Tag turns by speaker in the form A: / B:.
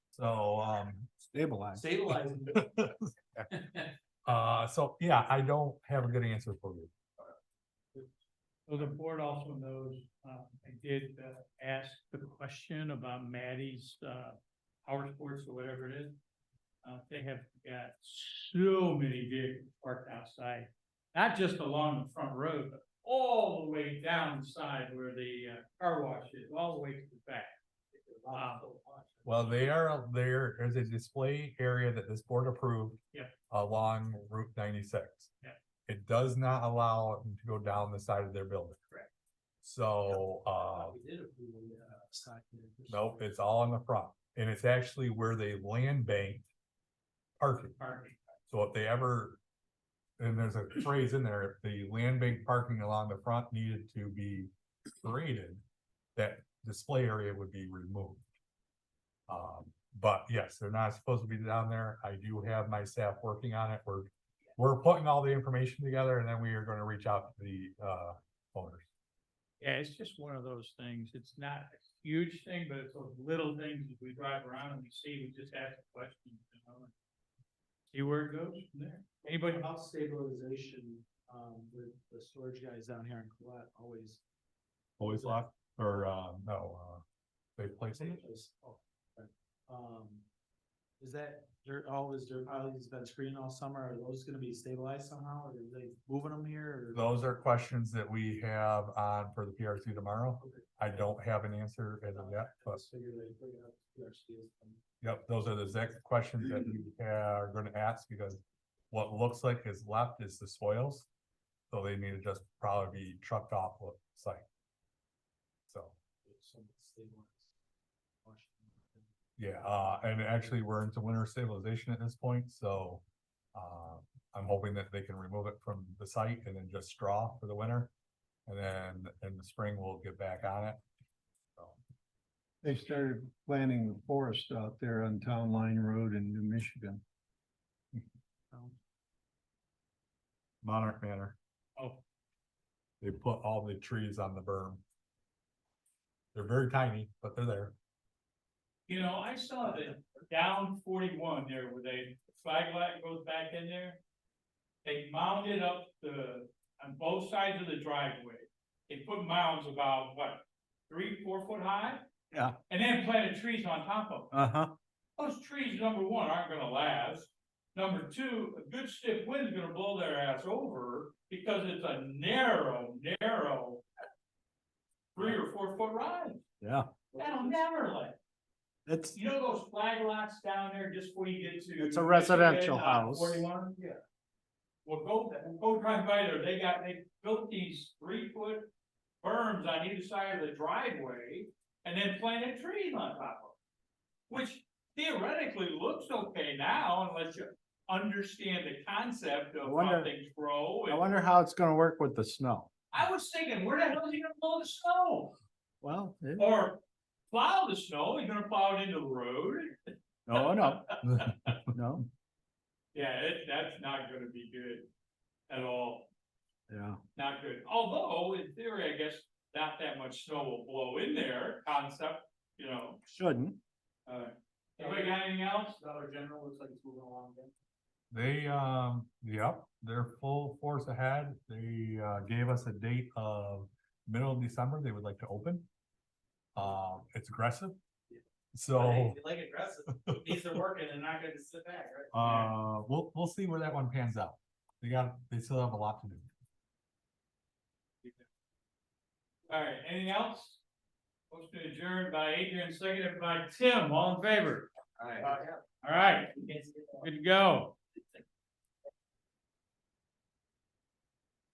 A: So, um,
B: Stabilize.
C: Stabilizing.
A: uh, so, yeah, I don't have a good answer for you.
D: So the board also knows, uh, I did, uh, ask the question about Maddie's, uh, power sports or whatever it is. Uh, they have got so many vehicles parked outside, not just along the front road, but all the way down the side where the, uh, car wash is, all the way to the back.
A: Well, they are, there is a display area that this board approved.
D: Yeah.
A: Along Route ninety-six.
D: Yeah.
A: It does not allow them to go down the side of their building.
D: Correct.
A: So, uh,
C: We did approve the, uh, side there.
A: nope, it's all in the front, and it's actually where they land bank parking.
D: Parking.
A: So if they ever, and there's a phrase in there, if the land bank parking along the front needed to be created, that display area would be removed. Um, but yes, they're not supposed to be down there. I do have my staff working on it. We're, we're putting all the information together and then we are gonna reach out to the, uh, owners.
D: Yeah, it's just one of those things. It's not a huge thing, but it's those little things that we drive around and we see, we just ask the question, you know. and See where it goes from there.
C: But
D: Anybody?
C: about stabilization, um, with the storage guys down here in Colette always.
A: Always locked, or, uh, no, uh, they place it.
C: Is- oh, right. Um, is that dirt, all this dirt pile that's been screened all summer, are those gonna be stabilized somehow, or are they moving them here? or-
A: Those are questions that we have on for the PRC tomorrow.
C: Okay.
A: I don't have an answer as of yet,
C: I
A: but
C: just figured I'd bring it up to PRC as well.
A: Yep, those are the exact questions that we are gonna ask because what looks like is left is the soils. So they need to just probably be trucked off the site. So,
C: If someone stabilized. Wash them.
A: yeah, uh, and actually, we're into winter stabilization at this point, so. Uh, I'm hoping that they can remove it from the site and then just straw for the winter. And then in the spring, we'll get back on it. So,
B: They started planting the forest out there on Town Line Road in New Michigan.
A: Monarch Manor,
D: Oh,
A: they put all the trees on the berm. They're very tiny, but they're there.
D: you know, I saw that down forty-one there where they, the flag light goes back in there. They mounded up the, on both sides of the driveway. They put mounds about, what, three, four foot high?
B: Yeah.
D: And then planted trees on top of them.
B: Uh-huh.
D: Those trees, number one, aren't gonna last. Number two, a good stiff wind's gonna blow their ass over because it's a narrow, narrow. Three or four foot rise.
B: Yeah.
D: That'll never last.
B: It's,
D: You know those flag lots down there just before you get to.
B: It's a residential
D: uh,
B: house.
D: Forty-one, yeah. Well, go, go drive by there. They got, they built these three foot berms on either side of the driveway and then planted trees on top of it. Which theoretically looks okay now unless you understand the concept
B: I
D: of how
B: wonder-
D: things grow.
B: I
D: and-
B: wonder how it's gonna work with the snow.
D: I was thinking, where the hell is he gonna blow the snow?
B: Well, it-
D: Or plow the snow? He's gonna plow it into the road?
B: no, no, no,
D: Yeah, it, that's not gonna be good at all,
B: yeah.
D: not good, although in theory, I guess, not that much snow will blow in there, concept, you know,
B: Shouldn't.
D: uh. Anybody got anything else?
C: Dollar General looks like it's moving along again.
A: They, um, yep, they're full force ahead. They, uh, gave us a date of middle of December, they would like to open. Um, it's aggressive. So,
C: Hey, you Like aggressive, these are working, they're not gonna sit back, right?
A: uh, we'll, we'll see where that one pans out. They got, they still have a lot to do.
D: Alright, anything else? Motion adjourned by Adrian, seconded by Tim, all in favor,
C: All right.
D: alright,
C: You guys get that?
D: good to go.